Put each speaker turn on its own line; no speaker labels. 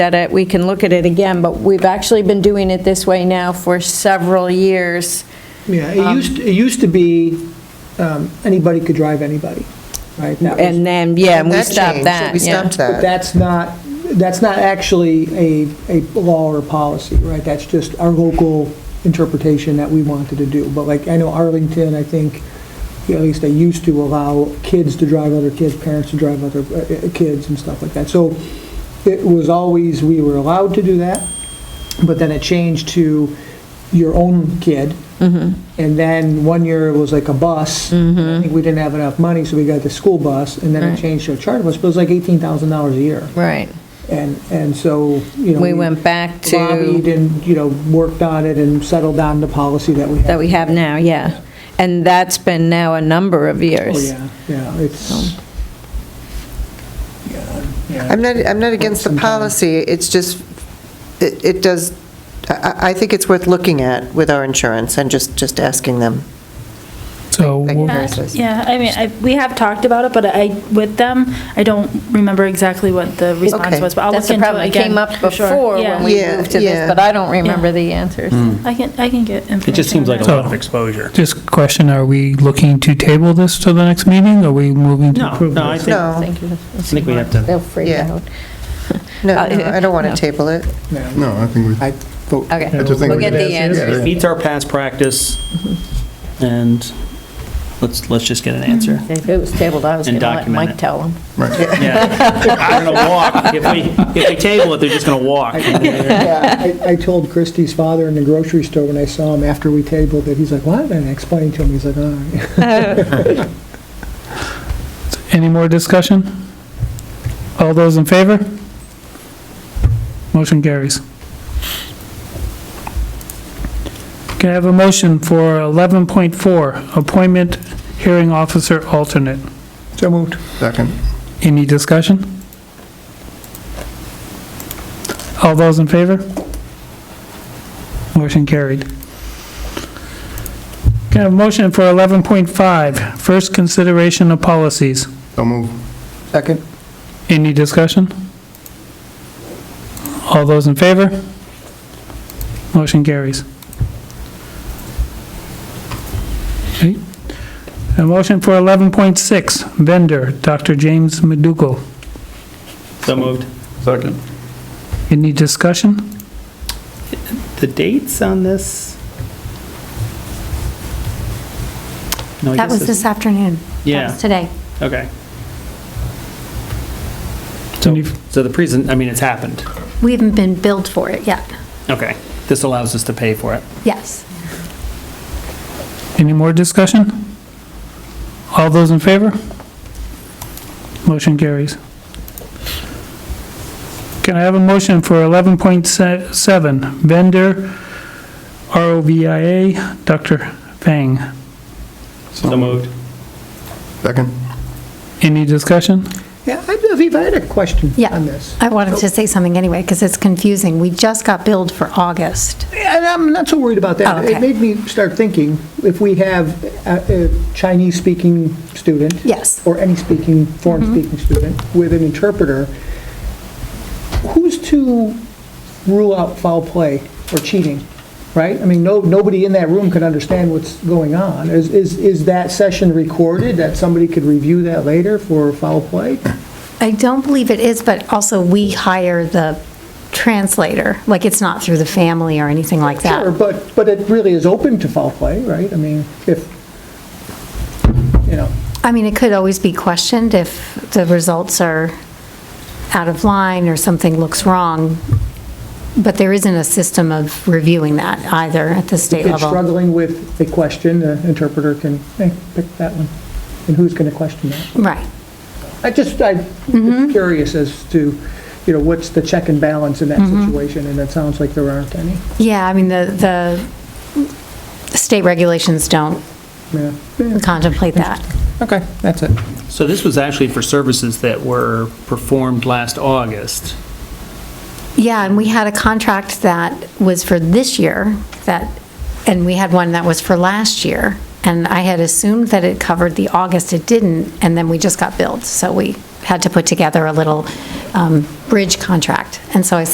at it, we can look at it again, but we've actually been doing it this way now for several years.
Yeah, it used, it used to be, um, anybody could drive anybody, right? That was-
And then, yeah, we
That
stopped
changed.
that,
We
yeah.
stopped
But
that.
that's not, that's not actually a, a law or policy, right? That's just our local interpretation that we wanted to do. But like, I know Arlington, I think, yeah, at least they used to allow kids to drive other kids, parents to drive other uh, uh, kids and stuff like that. So it was always, we were allowed to do that, but then it changed to your own kid.
Mm-hmm.
And then one year it was like a bus. I think we didn't have enough money, so we got the school bus, and then
Right.
it changed to a charter bus, but it was like $18,000 a year.
Right.
And, and so, you know.
We went back
Lobbied
to,
and, you know, worked on it and settled on the policy that we have.
that we have now, yeah. And that's been now a number of
Oh,
years.
yeah, yeah, it's, yeah,
I'm not, I'm not against the
Sometime.
policy, it's just, it it does, I- I I think it's worth looking at with our insurance and just, just asking them.
So
Like
we'll-
nurses.
Yeah, I mean, I, we have talked about it, but I, with them, I don't remember exactly what the response
Okay.
was, but I'll look
That's
into
the
it
problem, it
again,
came up
for sure.
before when
Yeah.
we
Yeah,
moved to this,
yeah. Hmm.
but I don't remember the answers.
I can, I can get information.
It just seems
on
like a
that.
lot of exposure.
just question, are we looking to table this to the next meeting? Are we moving to
No,
approve
no, I
this?
think, I
No,
think we have to,
They'll freak
Yeah.
out.
no, no, I don't want
Uh, No.
to table it.
yeah.
No, I think we,
I-
Okay,
I just think
we'll
we-
get the
Yeah.
answers.
it meets our past practice, and let's, let's just get an answer.
If it was tabled, I was going
And
to let
document
Mike
it.
tell them.
right.
Yeah, I'm gonna walk. If we, if we table it, they're just gonna walk.
Yeah, I, I told Christie's father in the grocery store when I saw him after we tabled it, he's like, what? And I explained to him, he's like, all right.
Any more discussion? All those in favor? Motion carries. Can I have a motion for 11.4, appointment hearing officer alternate?
So moved.
Second,
Any discussion? All those in favor? Motion carried. Can I have a motion for 11.5, first consideration of policies?
so move.
Second.
Any discussion? All those in favor? Motion carries. Okay. A motion for 11.6, vendor, Dr. James Meduco.
So moved.
Second.
Any discussion?
The dates on this? No, I
That
guess
was this afternoon. That
Yeah,
was today.
okay.
Can you-
So the present, I mean, it's happened.
We haven't been billed for it yet.
Okay. This allows us to pay for it.
Yes.
Any more discussion? All those in favor? Motion carries. Can I have a motion for 11.7, vendor, ROVIA, Dr. Fang?
So moved.
Second,
Any discussion?
Yeah, I, Aviva, I had a question
Yeah.
on this.
I wanted to say something anyway, because it's confusing. We just got billed for August.
And I'm not so worried about that.
Oh,
It
okay.
made me start thinking, if we have a a Chinese-speaking student.
Yes. Mm-hmm.
Or any speaking, foreign-speaking student with an interpreter, who's to rule out foul play or cheating, right? I mean, no, nobody in that room could understand what's going on. Is, is is that session recorded, that somebody could review that later for foul play?
I don't believe it is, but also we hire the translator. Like, it's not through the family or anything like that.
Sure, but, but it really is open to foul play, right? I mean, if, you know.
I mean, it could always be questioned if the results are out of line or something looks wrong, but there isn't a system of reviewing that either at the state
If
level.
struggling with a question, the interpreter can, hey, pick that one. And who's going to question that?
Right.
I just, I'm
Mm-hmm.
curious as to, you know, what's the check and balance in that
Mm-hmm.
situation? And it sounds like there aren't any.
Yeah, I mean, the, the state regulations don't
Yeah.
contemplate that.
Okay, that's it.
So this was actually for services that were performed last August.
Yeah, and we had a contract that was for this year, that, and we had one that was for last year, and I had assumed that it covered the August, it didn't, and then we just got billed, so we had to put together a little um, bridge contract. And so I